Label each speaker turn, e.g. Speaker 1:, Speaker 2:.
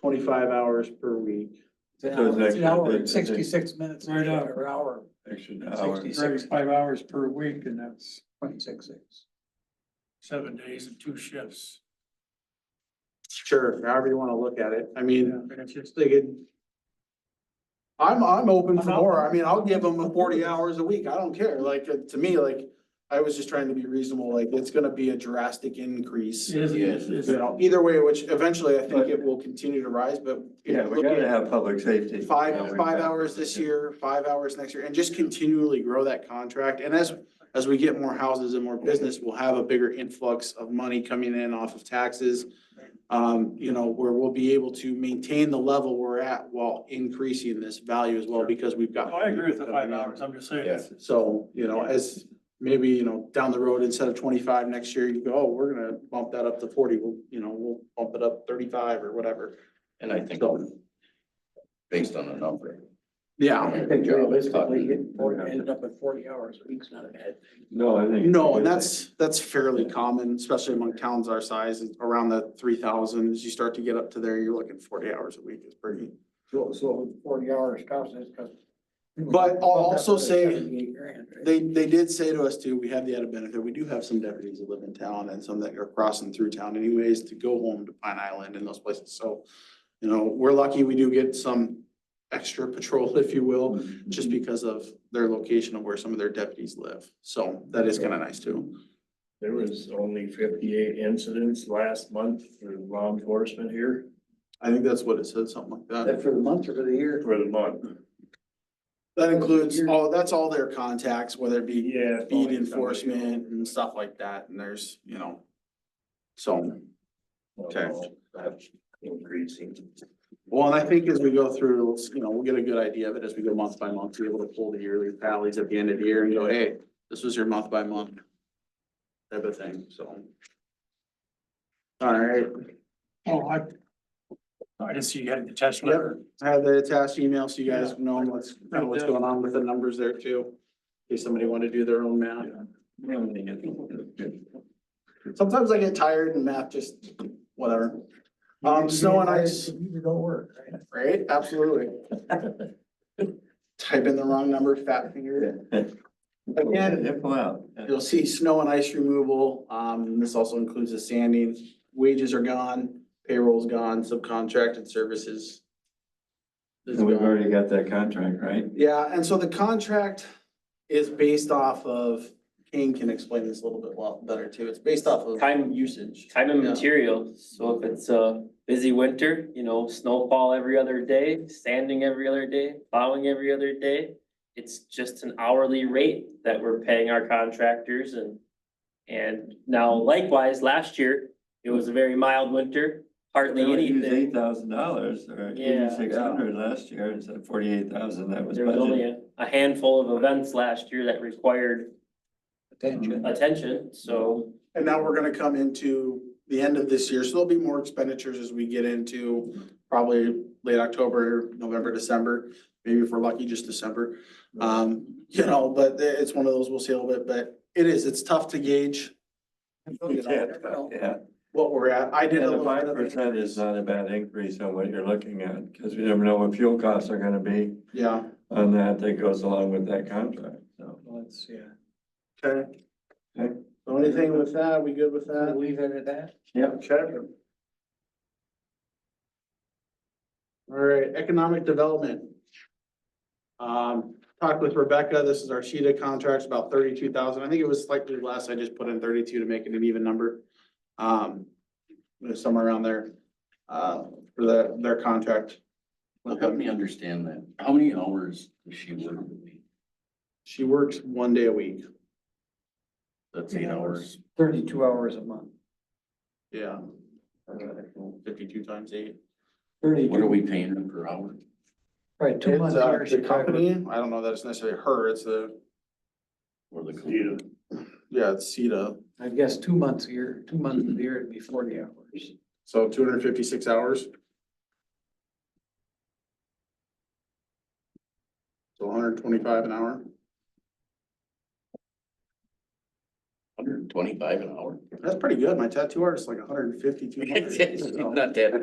Speaker 1: twenty-five hours per week.
Speaker 2: It's an
Speaker 3: So it's
Speaker 2: hour- it's an
Speaker 3: actually-
Speaker 2: hour and
Speaker 3: it's- it's-
Speaker 2: sixty-six minutes,
Speaker 4: Right
Speaker 2: right
Speaker 4: up.
Speaker 2: hour, hour,
Speaker 3: Extra hour.
Speaker 2: sixty-six,
Speaker 4: Thirty-five hours per week and that's
Speaker 2: twenty-six, six.
Speaker 4: seven days and two shifts.
Speaker 1: Sure, however you wanna look at it. I mean,
Speaker 4: And if you're
Speaker 1: just thinking. I'm, I'm open for more. I mean, I'll give them forty hours a week. I don't care. Like, uh, to me, like, I was just trying to be reasonable, like, it's gonna be a drastic increase.
Speaker 4: Is, is,
Speaker 3: Yes.
Speaker 4: is,
Speaker 1: You know, either way, which eventually I think it will continue to rise, but. if
Speaker 3: Yeah,
Speaker 1: you
Speaker 3: we
Speaker 1: look at-
Speaker 3: gotta have public safety.
Speaker 1: five,
Speaker 3: Yeah, we
Speaker 1: five
Speaker 3: got-
Speaker 1: hours this year, five hours next year, and just continually grow that contract. And as, as we get more houses and more business, we'll have a bigger influx of money coming in off of taxes. Um, you know, where we'll be able to maintain the level we're at while increasing this value as well, because we've got.
Speaker 4: No, Oh, I agree with the five hours, I'm just saying.
Speaker 3: Yes.
Speaker 1: So, you know, as maybe, you know, down the road, instead of twenty-five next year, you go, oh, we're gonna bump that up to forty, we'll, you know, we'll bump it up thirty-five or whatever.
Speaker 5: And I think
Speaker 1: So,
Speaker 5: based on a number.
Speaker 1: yeah.
Speaker 2: Realistically, it ended up at forty hours a week's not a bad thing.
Speaker 3: No, I think.
Speaker 1: No, and that's, that's fairly common, especially among towns our size, is around the three thousand, as you start to get up to there, you're looking forty hours a week is pretty.
Speaker 2: So, so forty hours costs us, cause.
Speaker 1: But I'll also say
Speaker 2: They,
Speaker 1: They, they did say to us too, we have the added benefit, we do have some deputies that live in town and some that are crossing through town anyways to go home to Pine Island and those places, so. You know, we're lucky we do get some extra patrol, if you will, just because of their location of where some of their deputies live, so that is kinda nice too.
Speaker 6: There was only fifty-eight incidents last month for law enforcement here
Speaker 1: I think that's what it said, something like that.
Speaker 2: that for the month or for the
Speaker 1: Mm-hmm.
Speaker 2: year,
Speaker 6: for the month.
Speaker 1: That includes all, that's all their contacts, whether it be
Speaker 6: Yeah. it's
Speaker 1: speed
Speaker 6: only somebody-
Speaker 1: enforcement and stuff like that, and there's, you know. So, Okay.
Speaker 6: That's Increasing.
Speaker 1: well, and I think as we go through, let's, you know, we'll get a good idea of it as we go month by month, be able to pull the yearly tallies at the end of the year and go, hey, this was your month by month. Type of thing, so. All right,
Speaker 4: Oh, I, I just see you had a detached
Speaker 1: Yep.
Speaker 4: letter.
Speaker 1: I have the attached email, so you guys know what's, know what's going on with the numbers there too. In case somebody wanted to do their own math. Sometimes I get tired and math just, whatever. Um, snow and ice,
Speaker 2: you don't work, right?
Speaker 1: right? Absolutely. Type in the wrong number, fat finger. Again.
Speaker 3: Nip out.
Speaker 1: You'll see snow and ice removal. Um, this also includes the sanding. Wages are gone, payroll's gone, subcontracted services. is
Speaker 3: And we've
Speaker 1: gone.
Speaker 3: already got that contract, right?
Speaker 1: Yeah, and so the contract is based off of, Kane can explain this a little bit well, better too. It's based off of.
Speaker 7: Time-
Speaker 1: usage.
Speaker 7: Time and
Speaker 1: Yeah.
Speaker 7: material, so if it's a busy winter, you know, snowfall every other day, sanding every other day, plowing every other day. It's just an hourly rate that we're paying our contractors and. And now likewise, last year, it was a very mild winter, hardly
Speaker 3: Eight
Speaker 7: anything.
Speaker 3: thousand dollars or
Speaker 7: Yeah.
Speaker 3: eighty-six hundred last year instead of forty-eight thousand that was
Speaker 7: There was only
Speaker 3: budgeted.
Speaker 7: a a handful of events last year that required
Speaker 2: Attention.
Speaker 7: attention, so.
Speaker 1: And now we're gonna come into the end of this year, so there'll be more expenditures as we get into probably late October, November, December, maybe if we're lucky, just December. Um, you know, but it's one of those, we'll see a little bit, but it is, it's tough to gauge
Speaker 3: You can't, Yeah,
Speaker 1: what we're at. I did
Speaker 3: and
Speaker 1: a
Speaker 3: the
Speaker 1: little bit
Speaker 3: five
Speaker 1: of it.
Speaker 3: percent is not a bad increase on what you're looking at, because you never know what fuel costs are gonna be
Speaker 1: Yeah,
Speaker 3: on that that goes along with that contract, so.
Speaker 2: Let's, uh, yeah.
Speaker 1: okay.
Speaker 3: Okay.
Speaker 1: So anything with that, we good with that?
Speaker 2: Leave it at that.
Speaker 1: Okay. All right, economic development. Um, talked with Rebecca, this is our Sheeta contracts, about thirty-two thousand, I think it was slightly less, I just put in thirty-two to make it an even number. Um, it was somewhere around there, uh, for the, their contract.
Speaker 5: Well, help me understand that. How many hours does she work? a week?
Speaker 1: She works one day a week.
Speaker 5: That's eight hours.
Speaker 2: Thirty-two hours a month.
Speaker 1: Yeah. Fifty-two times eight.
Speaker 5: What are
Speaker 2: Thirty-two,
Speaker 5: we paying her per hour?
Speaker 2: right, two
Speaker 1: It's,
Speaker 2: months.
Speaker 1: uh,
Speaker 2: here,
Speaker 1: the
Speaker 2: Chicago.
Speaker 1: company, I don't know that it's necessarily her, it's the,
Speaker 5: Or the?
Speaker 6: Yeah.
Speaker 1: yeah, it's Sheeta,
Speaker 2: I guess two months a year, two months a year, it'd be forty hours.
Speaker 1: so two hundred and fifty-six hours. So hundred and twenty-five an hour.
Speaker 5: Hundred and twenty-five an hour?
Speaker 1: That's pretty good. My tattoo artist is like 150, 200.
Speaker 5: Not that